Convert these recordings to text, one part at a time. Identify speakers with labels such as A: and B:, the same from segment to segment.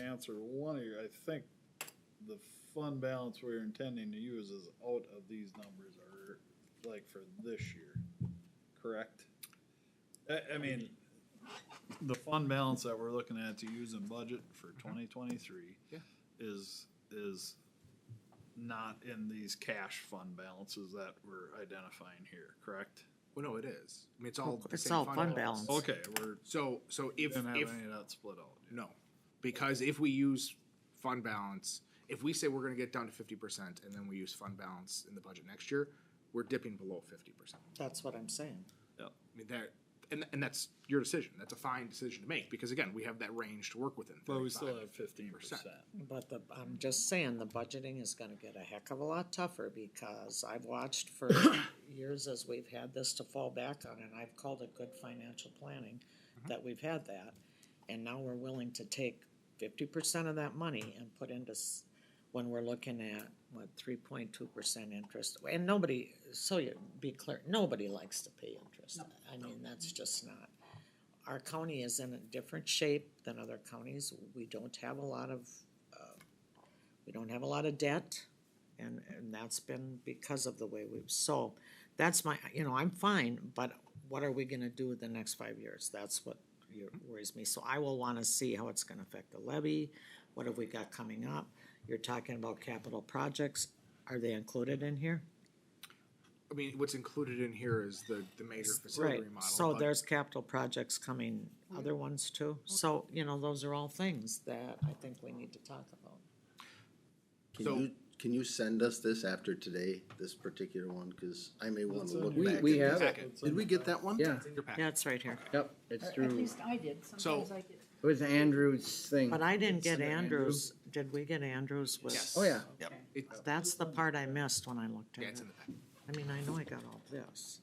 A: answer one of your, I think the fund balance we're intending to use is out of these numbers are like for this year, correct? I, I mean, the fund balance that we're looking at to use in budget for twenty twenty-three
B: Yeah.
A: is, is not in these cash fund balances that we're identifying here, correct?
B: Well, no, it is. I mean, it's all the
C: It's
B: same
C: all
B: fund
C: fund
B: balance.
C: balance.
A: Okay, we're,
B: So, so
A: we
B: if,
A: didn't have
B: if,
A: any of that split out. yet.
B: no, because if we use fund balance, if we say we're gonna get down to fifty percent and then we use fund balance in the budget next year, we're dipping below fifty percent.
C: That's what I'm saying.
B: I mean, that, and, and that's your decision. That's a fine decision to make, because again, we have that range to work within.
A: But we
B: 35.
A: still have fifteen percent.
C: But the, I'm just saying, the budgeting is gonna get a heck of a lot tougher because I've watched for years as we've had this to fall back on, and I've called it good financial planning, that we've had that. And now we're willing to take fifty percent of that money and put into, s- when we're looking at, what, three point two percent interest. And nobody, so you, be clear, nobody likes to pay interest. I mean, that's just not. Our county is in a different shape than other counties. We don't have a lot of we don't have a lot of debt, and, and that's been because of the way we've, so, that's my, you know, I'm fine, but what are we gonna do the next five years? That's what you- worries me, so I will wanna see how it's gonna affect the levy, what have we got coming up? You're talking about capital projects, are they included in here?
B: I mean, what's included in here is the, the major facility
C: Right,
B: remodel.
C: so
B: but-
C: there's capital projects coming, other ones too, so, you know, those are all things that I think we need to talk about.
D: Can
B: So-
D: you, can you send us this after today, this particular one, cause I may wanna
A: That's on
D: look
A: your-
E: We-
D: back.
E: we
D: at
E: have
D: this.
B: it.
D: Did we get that one?
E: Yeah,
B: It's in your packet.
C: Yeah, it's right here,
E: yep, it's
F: At
E: through,
F: least I did, sometimes I did.
E: it was Andrew's thing.
C: but I didn't
E: It's
C: get
E: under Andrew.
C: Andrews, did we get Andrews with?
B: Yes.
E: Oh, yeah,
B: It's-
C: That's the part I missed when I looked at
B: Yeah, it's
C: it.
B: in the packet.
C: I mean, I know I got all this.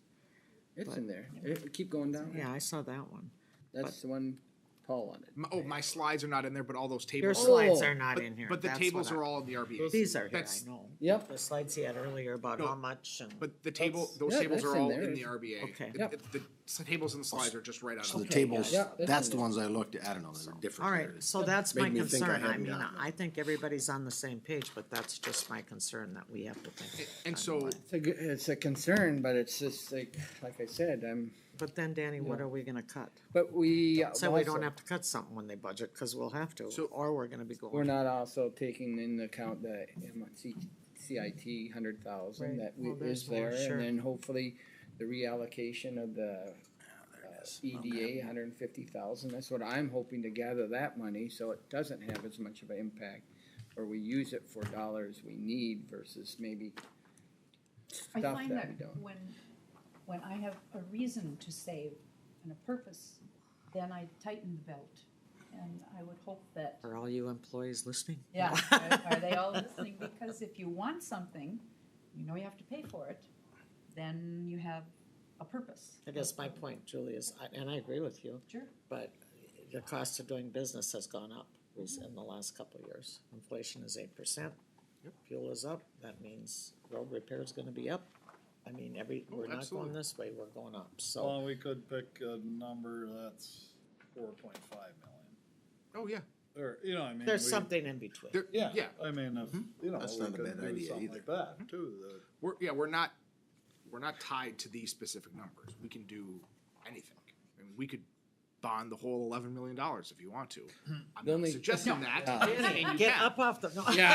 E: it's in there. It- Keep going down.
C: Yeah, I saw that one.
E: That's the one Paul wanted.
B: My- Oh, my slides are not in there, but all those
C: Your
B: tables. are-
C: slides
E: Oh.
C: are not
B: but-
C: in here.
B: But the
C: That's
B: tables
C: what I-
B: are all in the RBA.
C: These are here,
B: That's-
C: I know.
E: Yep.
C: The slides he had earlier about
B: No,
C: how much and,
B: But the table,
E: That's-
B: those
E: yeah,
B: tables
E: that's
B: are
E: in
B: all
E: there.
B: in the RBA.
C: Okay.
B: It-
E: Yep.
B: it- The s- tables and the slides are just right out
D: So
B: of
D: the
B: the.
D: tables,
E: Yeah, that's
D: that's
E: in
D: the
E: there.
D: ones I looked at, I don't know, they're different.
C: all right,
D: areas.
C: so that's my
D: Made me think I
C: concern. I
D: hadn't
C: mean,
D: gotten it.
C: I think everybody's on the same page, but that's just my concern that we have to think.
B: And
C: about
B: so,
C: it.
E: It's a, g- it's a concern, but it's just like, like I said, I'm,
C: But then, Danny, what are we gonna cut?
E: but we.
C: So we
E: also-
C: don't have to cut something when they budget, cause we'll have to,
B: So-
C: or we're gonna be going.
E: We're not also taking into account the M- C- CIT hundred
C: Right.
E: thousand that we-
C: Well,
E: is
C: there's more,
E: there,
C: sure.
E: and then hopefully the reallocation of the uh, EDA, hundred and fifty thousand, that's what I'm hoping to gather that money, so it doesn't have as much of an impact. Or we use it for dollars we need versus maybe
F: I
E: stuff
F: find
E: that
F: that
E: we don't.
F: when, when I have a reason to save and a purpose, then I tighten the belt. And I would hope that,
C: Are all you employees listening?
F: yeah, are- are they all listening? Because if you want something, you know you have to pay for it, then you have a purpose.
C: I guess my point, Julie, is, I- and I agree with you,
F: Sure.
C: but the cost of doing business has gone up rec- in the last couple of years. Inflation is eight percent. Fuel is up, that means road repair is gonna be up. I mean, every,
B: Oh,
C: we're not going
B: absolutely.
C: this way, we're going up, so.
A: Well, we could pick a number that's four point five million,
B: oh, yeah,
A: or, you know, I mean.
C: There's
A: we-
C: something in between.
B: there,
A: Yeah,
B: yeah,
A: I mean, if, you know,
D: Mm-hmm. That's
A: we
D: not a
A: could
D: bad
A: do
D: idea
A: something like that too, the.
B: we're, yeah, we're not, we're not tied to these specific numbers. We can do anything. I mean, we could bond the whole eleven million dollars if you want to. I'm
E: Hmm. The
B: not
E: only-
B: suggesting that. and you
C: Get
B: can.
C: up off the, no. Get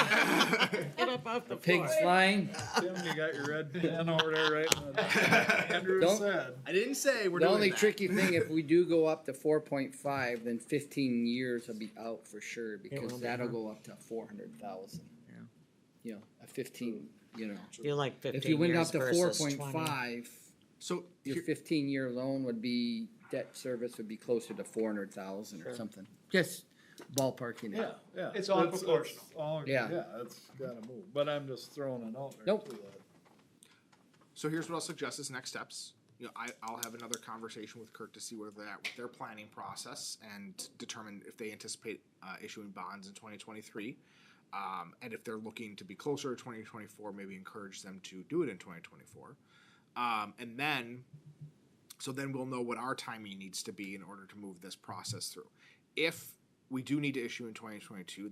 C: up off the floor.
E: Pigs flying,
A: Tim, you got your red pen over there, right? Andrew
E: Don't-
A: said,
B: I didn't say we're
E: the
B: doing
E: only
B: that.
E: tricky thing, if we do go up to four point five, then fifteen years will be out for sure,
C: will
E: because
C: be,
E: that'll
C: huh?
E: go up to four hundred thousand.
C: Yeah.
E: You know, a fifteen, you know,
C: You like
E: if you
C: fifteen
E: went
C: years
E: up to four
C: versus
E: point
C: twenty.
E: five,
B: So
E: your
B: here-
E: fifteen year loan would be, debt service would be closer to four hundred thousand or
C: Sure.
E: something, just ballparking
A: yeah,
E: it.
A: yeah.
B: It's all
A: it's
B: proportional.
A: all-
E: Yeah.
A: Yeah, it's gotta move, but I'm just throwing it out there.
E: Nope.
A: too, that-
B: So here's what I'll suggest as next steps. You know, I, I'll have another conversation with Kirk to see where they're at with their planning process and determine if they anticipate uh, issuing bonds in 2023. Um, and if they're looking to be closer to 2024, maybe encourage them to do it in 2024. Um, and then, so then we'll know what our timing needs to be in order to move this process through. If we do need to issue in 2022,